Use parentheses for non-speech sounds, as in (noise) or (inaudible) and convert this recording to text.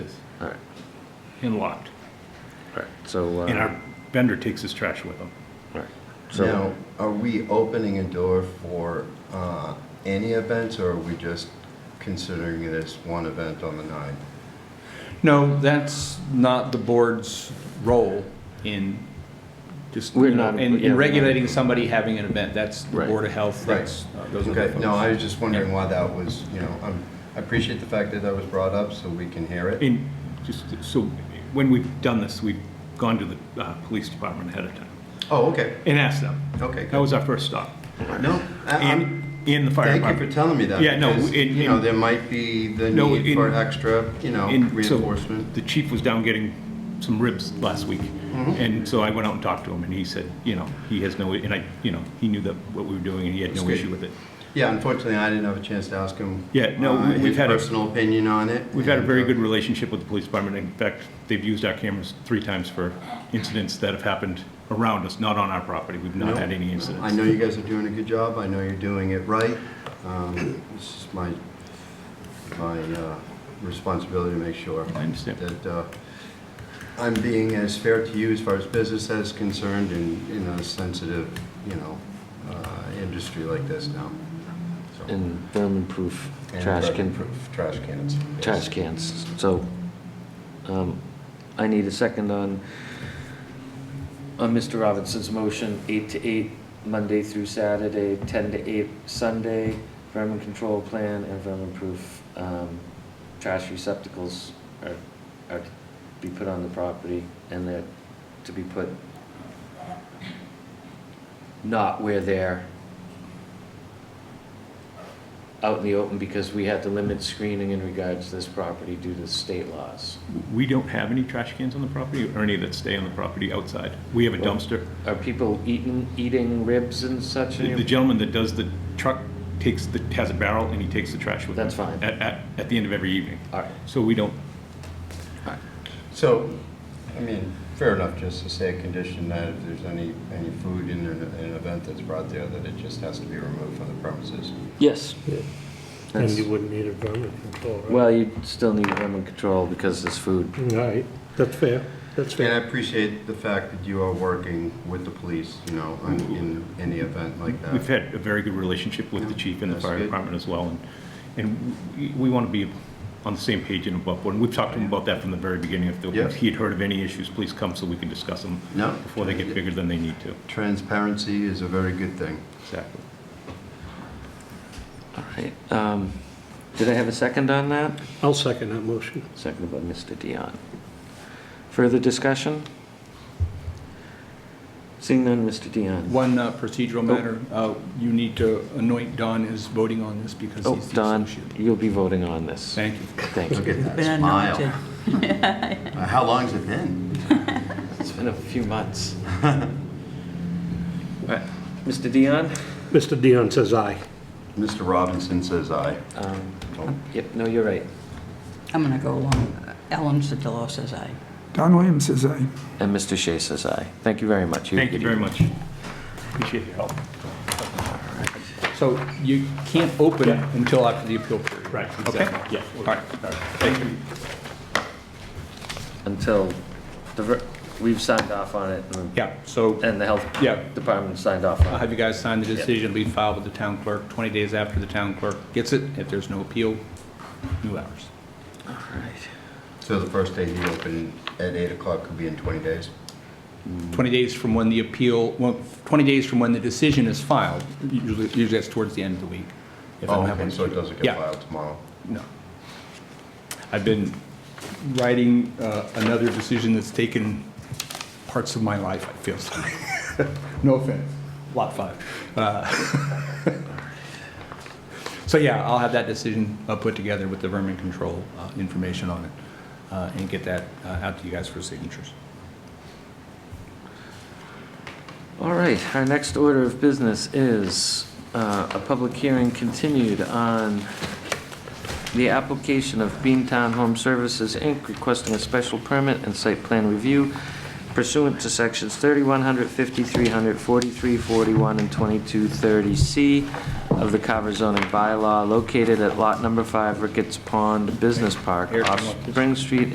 and locked. Right, so. uh, And our vendor takes his trash with him. right. Now, So, are we opening a door for uh, any events, or are we just considering this one event on the nine? No, that's not the board's role in just, We're you know, not- in yeah, we're in not- regulating somebody having an event. That's the Right. Board of Health, Right. that's, uh, those are the Okay, folks. no, I was just wondering Yeah. why that was, you know, I'm- I appreciate the fact that that was brought up, so we can hear it. And just, so when we've done this, we've gone to the uh, police department ahead of time Oh, okay, and asked them. okay, That good. was our first stop. No, I- I'm- And, and the fire thank you for department. telling me that. Yeah, no, because, in- You know, in- there might be the No, need in- for extra, you know, And so reinforcement. Mm-hmm. The chief was down getting some ribs last week. And so I went out and talked to him and he said, you know, he has no, and I, you know, he knew that what we were doing and he had That's no good. issue with it. Yeah, unfortunately, I didn't have a chance to ask him. Yeah, no, uh, we- we've his had a- personal opinion on it. We've had a and, very uh, good relationship with the police department. In fact, they've used our cameras three times for incidents that have happened around us, not on our property. We've not No. had any incidents. I know you guys are doing a good job. I know you're doing it right. Um, This is my, my uh, responsibility to make sure I understand. that uh, I'm being as fair to you as far as business is concerned in, in a sensitive, you know, uh, industry like this now. So- and vermin-proof And trash can, proof Trash cans. yes. trash cans. So, um, I need a second on, on Mr. Robinson's motion, eight to eight, Monday through Saturday, ten to eight Sunday, vermin control plan and vermin-proof, um, trash receptacles are, are to be put on the property and they're to be put not where they're out in the open because we had to limit screening in regards to this property due to state laws. We don't have any trash cans on the property or any that stay on the property outside. We have a dumpster. Are people eating, eating ribs and such? in The your- the gentleman that does the truck takes the, has a barrel and he takes the trash with him. That's fine. At, at, at the end of every evening. All right, So we don't, So, I mean, fair enough, just to say a condition that if there's any, any food in an, in an event that's brought there, that it just has to be removed from the premises. yes. And That's- you wouldn't need a vermin control, right? Well, you still need vermin control because there's food. All right, that's fair, that's And I fair. appreciate the fact that you are working with the police, you know, on- in any event like we've that. had a very good relationship with the chief and the That's fire good. department as well. And, and we, we want to be on the same page and above board. And we've talked to him about that from the very beginning. If there- Yeah. If he had heard of any issues, please come so we can discuss them No, before they get bigger than they need to. transparency is a very good thing. Exactly. All right. Um, did I have a second on that? I'll second that motion. Seconded by Mr. Dion. Further discussion? Seeing none, Mr. Dion. One uh, procedural matter, uh, you need to anoint Don as voting on this because Oh, he's the Don, associate. you'll be voting on this. Thank you. Thank you. Look at that smile. Uh, How long's it been? It's been a few (laughs) months. All right, Mr. Dion? Mr. Dion says aye. Mr. Robinson says aye. Um, Oh, Yep, no, you're right. I'm going to go along. Ellen Sedillo says aye. Don Williams says aye. And Mr. Shea says aye. Thank you very much. Thank you very much. Appreciate your help. So you can't open it until after the appeal period. Right, Okay? exactly. Yeah. All right. Thank you. Until the, ver- we've signed off on it and- Yeah, so and the health Yeah. department signed off I'll on it. have you guys sign the decision, be filed with the town clerk, 20 days after the town clerk gets it. If there's no appeal, new hours. All right. So the first day he opened at 8 o'clock could be in 20 days? 20 days from when the appeal, well, 20 days from when the decision is filed, usually, usually that's towards the end of the week. if I Oh, don't have okay, one. so it doesn't Yeah. get filed tomorrow? No. I've been Writing uh, another decision that's taken parts of my life, I feel sorry. (laughs) No offense. Lot five. Uh, (laughs) So yeah, I'll have that decision uh, put together with the vermin control uh, information on it uh, and get that uh, out to you guys for signatures. All right, our next order of business is uh, a public hearing continued on the application of Beantown Home Services, Inc., requesting a special permit and site plan review pursuant to sections 3100, 5300, 4341, and 2230C of the Carver zoning bylaw located at lot number 5 Ricketts Pond Business Park Here, off come on. Spring Street